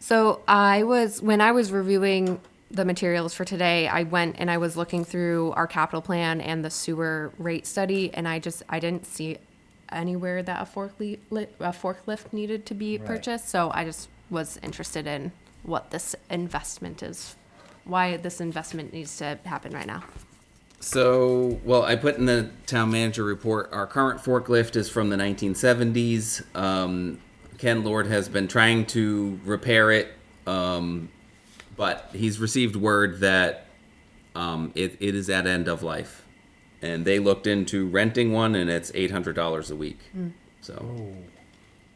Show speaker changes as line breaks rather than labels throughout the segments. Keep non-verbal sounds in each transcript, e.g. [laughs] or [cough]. So I was when I was reviewing the materials for today, I went and I was looking through our capital plan and the sewer rate study, and I just I didn't see anywhere that a forklift a forklift needed to be
Right.
purchased. So I just was interested in what this investment is, why this investment needs to happen right now.
So, well, I put in the town manager report our current forklift is from the 1970s. Um, Ken Lord has been trying to repair it, um, but he's received word that um, it, it is at end of life. And they looked into renting one, and it's $800 a week. So,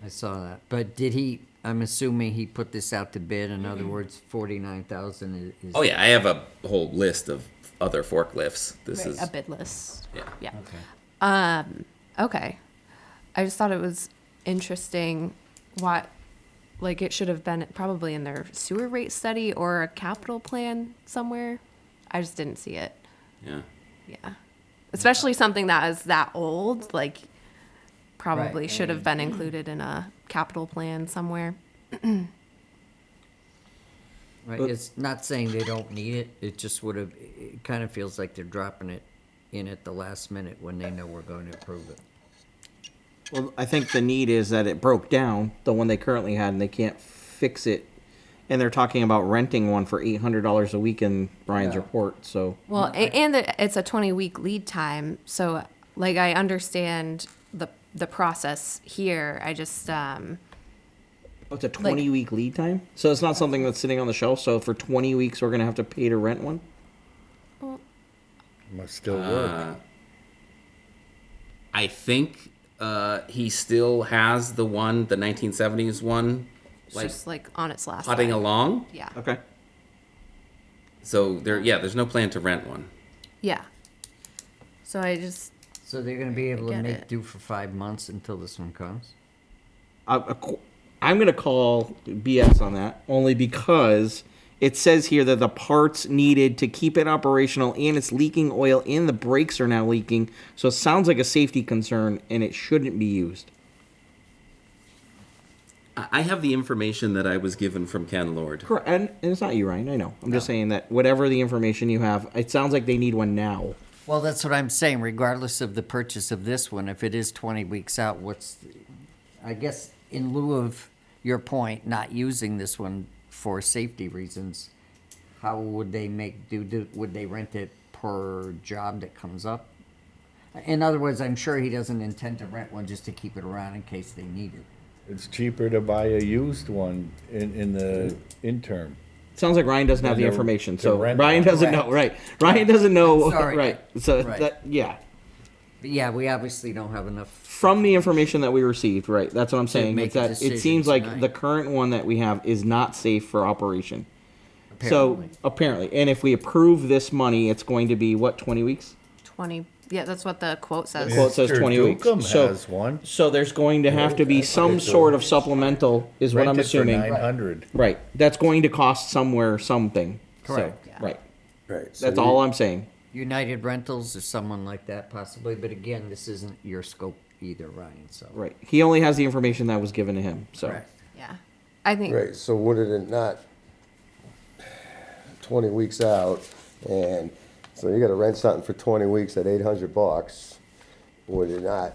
I saw that. But did he? I'm assuming he put this out to bid. In other words, forty nine thousand is.
oh, yeah, I have a whole list of other forklifts. This is.
a bid list.
Yeah.
Yeah. Um,
Okay.
Okay. I just thought it was interesting what like it should have been probably in their sewer rate study or a capital plan somewhere. I just didn't see it.
Yeah.
Yeah. Especially something that is that old, like probably
Right,
should have been included in a capital plan somewhere.
Right. It's not saying they don't need it. It just would have. It kind of feels like they're dropping it in at the last minute when they know we're going to approve it.
Well, I think the need is that it broke down, the one they currently had, and they can't fix it. And they're talking about renting one for eight hundred dollars a week in Brian's
Yeah.
report. So
Well, a- and it- it's a 20 week lead time. So, like, I understand the the process here. I just, um,
Oh, it's a twenty week lead time. So it's not something that's sitting on the shelf. So for twenty weeks, we're gonna have to pay to rent one.
Must still work.
I think uh, he still has the one, the 1970s one,
it's
like
just like on its last
putting
leg.
along.
Yeah.
Okay.
So there, yeah, there's no plan to rent one.
Yeah. So I just
So they're going to be able to
get
make
it.
do for five months until this one comes.
I, a qu- I'm gonna call BS on that only because it says here that the parts needed to keep it operational and it's leaking oil and the brakes are now leaking. So it sounds like a safety concern and it shouldn't be used.
I I have the information that I was given from Ken Lord.
Correct, and, and it's not you, Ryan. I know. I'm just saying that whatever the information you have, it sounds like they need one now.
Well, that's what I'm saying. Regardless of the purchase of this one, if it is 20 weeks out, what's, I guess, in lieu of your point, not using this one for safety reasons, how would they make do? do would they rent it per job that comes up? In other words, I'm sure he doesn't intend to rent one just to keep it around in case they need it.
It's cheaper to buy a used one in, in the interim.
It sounds like Ryan doesn't have the
they're-
information,
they're
so
rent-
Ryan doesn't know. Right, Ryan doesn't know.
Sorry.
Right, so
Right.
that yeah,
But yeah, we obviously don't have enough.
from the information that we received, right. That's what I'm saying.
make
It's
a
that it
decision
seems like
tonight.
the current one that we have is not safe for operation.
Apparently.
So apparently, and if we approve this money, it's going to be what 20 weeks.
20. Yeah, that's what the quote says.
Well, it says
Mr.
20 weeks.
Dukem
So-
has one.
So there's going to have to be some sort of supplemental, is what I'm assuming.
Nine hundred.
Right. That's going to cost somewhere something. So,
Correct. Yeah.
Right.
Right. so
That's
we-
all I'm saying.
United Rentals or someone like that possibly, but again, this isn't your scope either, Ryan, so.
Right. He only has the information that was given to him. So
Correct.
Yeah. I think
Right, so would it not, twenty weeks out, and so you gotta rent something for twenty weeks at eight hundred bucks, would it not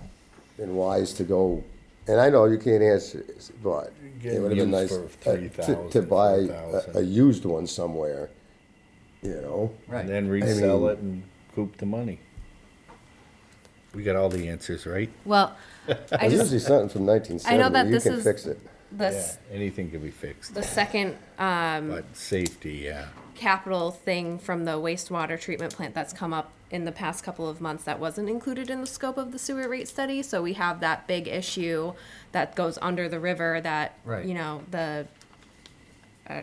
been wise to go, and I know you can't answer this, but it
Get
would have been nice
used for
uh, to, to
$3,000,
buy a, a
$4,000.
used one somewhere, you know?
Right.
And then resell
mean-
it and coop the money. We got all the answers, right?
[laughs] well, I
There's
just
usually something from nineteen
that
seventy, you
this
can
is-
fix it.
this
Anything can be fixed,
the second um,
but safety, yeah.
capital thing from the wastewater treatment plant that's come up in the past couple of months that wasn't included in the scope of the sewer rate study. So we have that big issue that goes under the river that
Right.
you know the uh,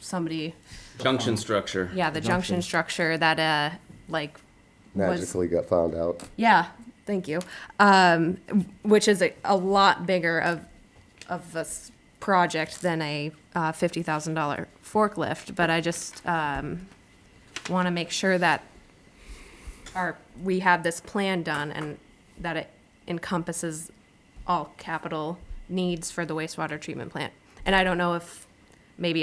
somebody
Junction structure.
yeah the junction structure that uh like was
Magically got found out.
Yeah, thank you. Um, which is a, a lot bigger of of this project than a uh, fifty thousand dollar forklift. But I just um, want to make sure that our we have this plan done and that it encompasses all capital needs for the wastewater treatment plant. And I don't know if maybe